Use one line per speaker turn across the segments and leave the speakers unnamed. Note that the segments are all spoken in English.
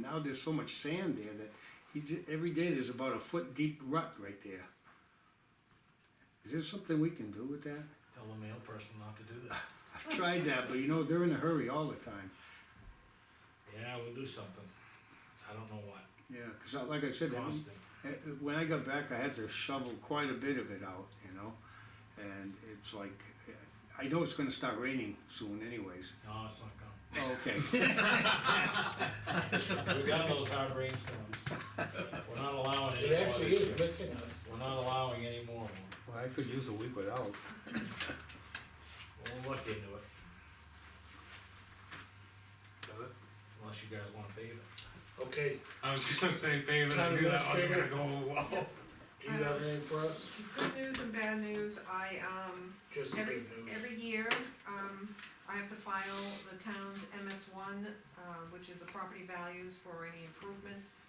now there's so much sand there that he ju- every day there's about a foot deep rut right there. Is there something we can do with that?
Tell the mail person not to do that.
I've tried that, but you know, they're in a hurry all the time.
Yeah, we'll do something. I don't know what.
Yeah, because like I said, every-
Boston.
Uh, When I got back, I had to shovel quite a bit of it out, you know, and it's like, uh, I know it's gonna start raining soon anyways.
No, it's not coming.
Oh, Okay,
We got those hard rainstorms. We're not allowing any
It
more
actually
this year.
is missing us.
We're not allowing any more.
well, I could use a week without.
We'll look into it. Got it? Unless you guys want to pave it.
Okay,
I was gonna say paving, I knew that wasn't gonna go "Oh, well.
do you have anything for us?
Good news and bad news, I, um,
Just the
every,
good news.
every year, um, I have to file the town's MS one, uh, which is the property values for any improvements,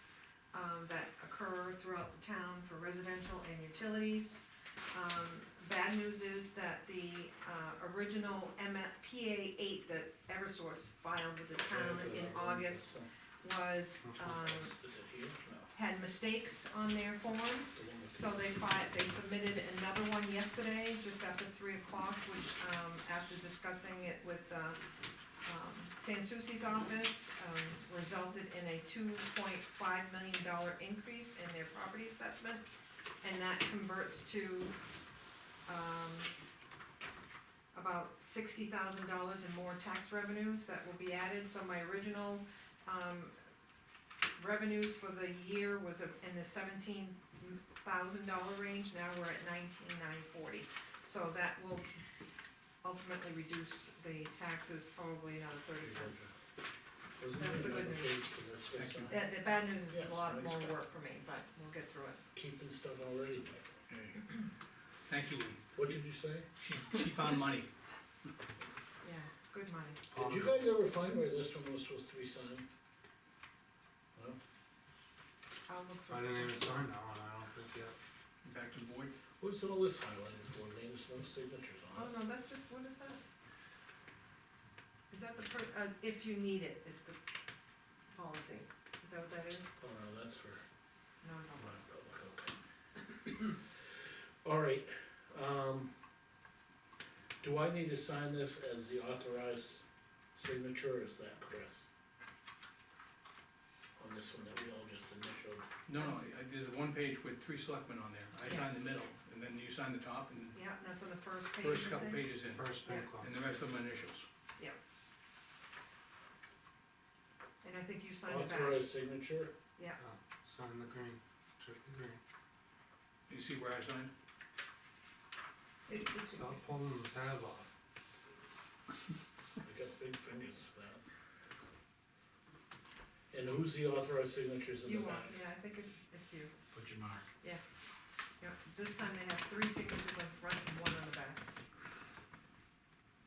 um, that occur throughout the town for residential and utilities. Um, bad news is that the, uh, original M, PA eight that Eversource filed with the town in August was, um,
Is it here? No,
had mistakes on their form.
the one with-
So they fi- they submitted another one yesterday, just after three o'clock, which, um, after discussing it with, uh, um, Sansucci's office, um, resulted in a two point five million dollar increase in their property assessment. And that converts to, um, about sixty thousand dollars in more tax revenues that will be added, so my original, um, revenues for the year was in the seventeen thousand dollar range, now we're at nineteen nine forty. So that will ultimately reduce the taxes probably another thirty cents.
Wasn't
That's
there
the good
another
news.
page for this? This one?
The, the bad news is
Yes,
a lot
nice.
more work for me, but we'll get through it.
Keeping stuff already, Michael.
Thank you, Lee.
What did you say?
She, she found money.
Yeah, good money.
Did
Um,
you guys ever find where this one was supposed to be signed?
I'll look
I
through
didn't
it.
even sign that one, I don't think yet.
Back to the board.
What's all this highlighted for, Lee? There's no signatures
Oh,
on it.
no, that's just, what is that? Is that the per, uh, if you need it, it's the policy. Is that what that is?
Oh, no, that's for.
No, no.
Alright, um, do I need to sign this as the authorized signature, is that Chris? On this one that we all just initialed,
No, no, I- Oh, there's one page with three selectmen on there. I signed
Yes.
the middle, and then you signed the top, and
Yeah, that's on the first page,
first
I
couple
think.
pages in,
First pink one.
and the rest of them initials.
And I think you signed it back.
authorized signature,
Yeah, Sign the green, check the green.
You see where I signed?
Stop pulling the tab off.
I got big fingers for that. And who's the authorized signatures in the
You
back?
want, yeah, I think it's, it's you,
Put your mark.
yes. Yep, this time they have three signatures on front and one on the back.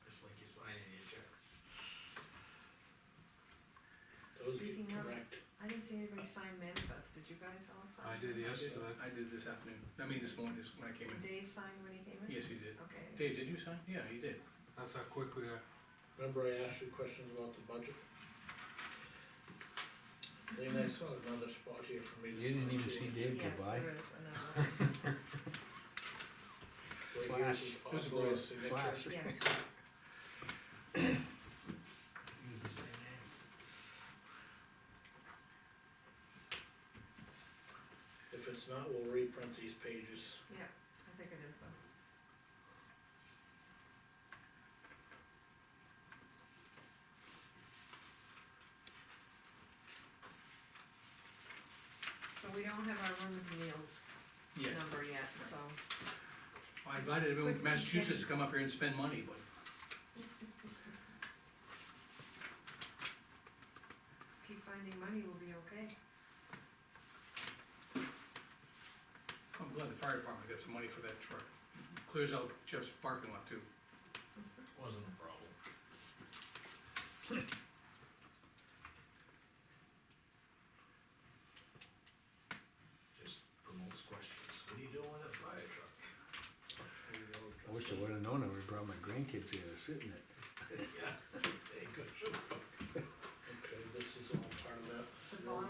Just like you sign in your check.
Those get
Speaking of-
correct,
I didn't see anybody sign manifest, did you guys all sign?
I did yesterday.
I did this afternoon. I mean, this morning, this, when I came in.
Did Dave sign when he came in?
Yes, he did.
Okay.
Dave, did you sign? Yeah, he did.
That's how quickly I
remember I asked you questions about the budget? Lean, I saw another spot here for me to sign. too.
Dave Yes, there is another,
Wait,
Flash.
yours
This
is
is
Osborne's
blue.
signature.
Flash.
one. yes,
Use the same name.
If it's not, we'll reprint these pages.
I think it is though. So we don't have our rooms and meals
Yeah.
number yet, so.
I invited everyone from Massachusetts to come up here and spend money, but
keep finding money, we'll be okay.
I'm glad the fire department got some money for that truck. Clears out Jeff's parking lot too.
Wasn't a problem. Just promotes questions. What are you doing with that fire truck?
I wish I would've known, I would've brought my grandkids here to sit in it.
Yeah, they could.
Okay, this is all part of that.
The
Well,